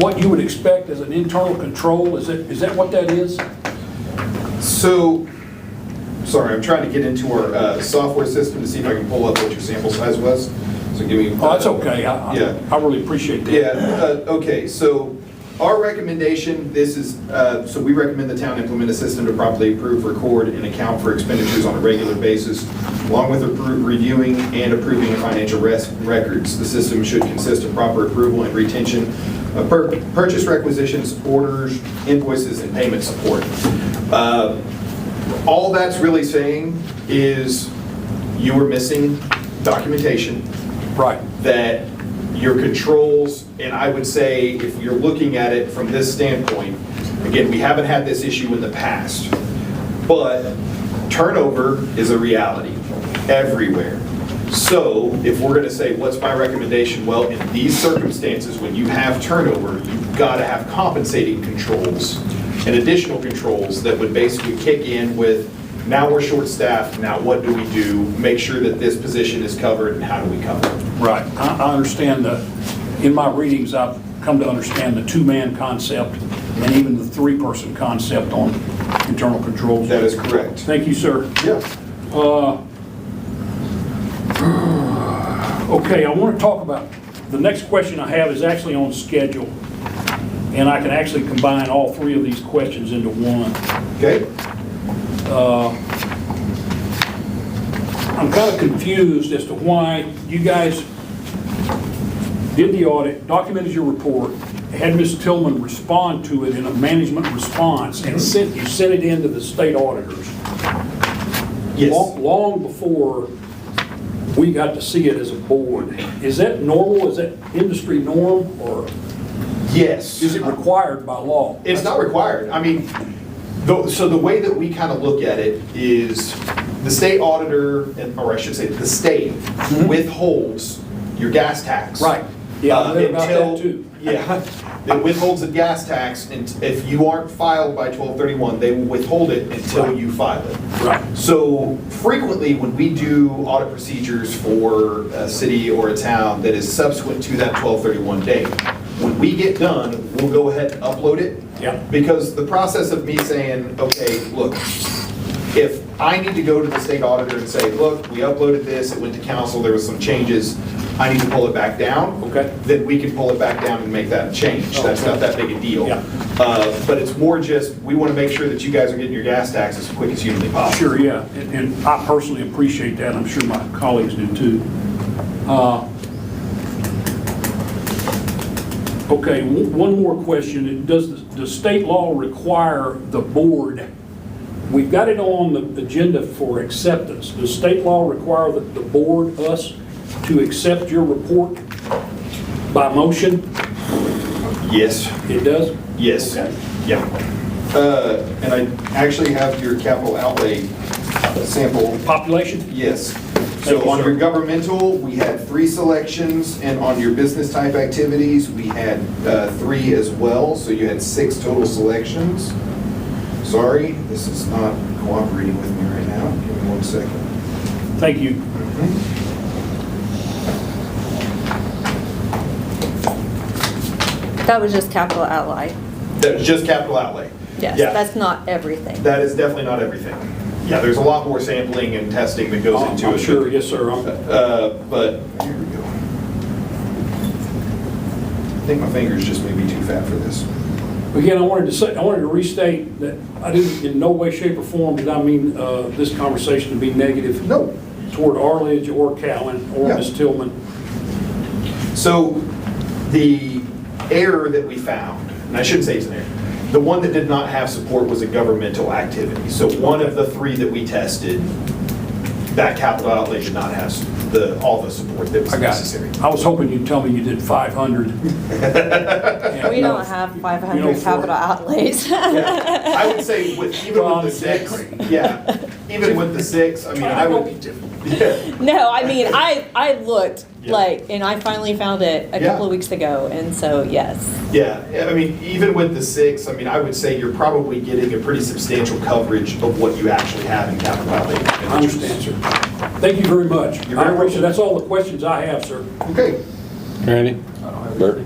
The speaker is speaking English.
what you would expect as an internal control? Is that, is that what that is? So, sorry, I'm trying to get into our uh, software system to see if I can pull up what your sample size was. So give me. Oh, that's okay. I, Yeah. I- I really appreciate that. Yeah, uh, okay, so our recommendation, this is, uh, so we recommend the town implement a system to properly approve, record, and account for expenditures on a regular basis, along with appro- reviewing and approving financial res- records. The system should consist of proper approval and retention of pur- purchase requisitions, orders, invoices, and payment support. Uh, All that's really saying is you are missing documentation Right. that your controls, and I would say, if you're looking at it from this standpoint, again, we haven't had this issue in the past, but turnover is a reality everywhere. So if we're going to say, what's my recommendation? Well, in these circumstances, when you have turnover, you've got to have compensating controls and additional controls that would basically kick in with, now we're short-staffed, now what do we do? Make sure that this position is covered, and how do we cover it? Right. I, I understand the, in my readings, I've come to understand the two-man concept and even the three-person concept on internal controls. That is correct. Thank you, sir. Yeah. Okay, I want to talk about, the next question I have is actually on schedule, and I can actually combine all three of these questions into one. Okay. I'm kind of confused as to why you guys did the audit, documented your report, had Ms. Tillman respond to it in a management response, Mm-hmm. and sent, you sent it in to the state auditors. Yes. Long long before we got to see it as a board. Is that normal? Is that industry norm, or Yes. is it required by law? It's not required. I mean, the- so the way that we kind of look at it is the state auditor, and- or I should say, the state withholds your gas tax. Right. Yeah, I Uh, read about that until- too. Yeah. It withholds the gas tax, and if you aren't filed by 1231, they will withhold it until Right. you file it. Right. So frequently, when we do audit procedures for a city or a town that is subsequent to that 1231 date, when we get done, we'll go ahead and upload it. Yeah. Because the process of me saying, okay, look, if I need to go to the state auditor and say, look, we uploaded this, it went to council, there was some changes, I need to pull it back down. Okay. Oh, Then we can pull it back down and make that change. That's not that big a deal. Yeah. Uh, But it's more just, we want to make sure that you guys are getting your gas tax as quick as humanly possible. Sure, yeah, and and I personally appreciate that, I'm sure my colleagues do too. Uh, Okay, o- one more question, does, the- does state law require the board, we've got it on the agenda for acceptance, does state law require that the board, us, to accept your report by motion? Yes. It does? Yes. Okay. Yeah. Uh, And I actually have your capital outlay uh, sample. Population? Yes. Thank So you, on sir. your governmental, we had three selections, and on your business type activities, we had uh, three as well, so you had six total selections. Sorry, this is not cooperating with me right now. Give me one second. Thank you. That was just capital outlay. That was just capital outlay. Yes, Yeah. that's not everything. That is definitely not everything. Yeah, there's a lot more sampling and testing that goes I'm- into it. Oh, Uh, I'm sure, yes, sir, I'm- Uh, But, here we go. I think my fingers just may be too fat for this. Again, I wanted to say, I wanted to restate that I didn't, in no way, shape, or form did I mean uh, this conversation to be negative. No. Toward Arledge or Cowan or Yeah. Ms. Tillman. So the error that we found, and I shouldn't say it's an error, the one that did not have support was a governmental activity. So one of the three that we tested, that capital outlay did not have the, all the support that was necessary. I was hoping you'd tell me you did 500. We uh, don't have You don't 500 for- capital outlays. Yeah, I would say with, even with Well, the I'm six, saying- yeah, even with the six, I mean, I would. Yeah, No, I mean, I, I looked, Yeah. like, and I finally found it a Yeah. couple of weeks ago, and so, yes. yeah, I mean, even with the six, I mean, I would say you're probably getting a pretty substantial coverage of what you actually have in capital outlay. I understand, sir. Thank you very much. You're very I appreciate- welcome. That's all the questions I have, sir. Okay. Randy? Bert?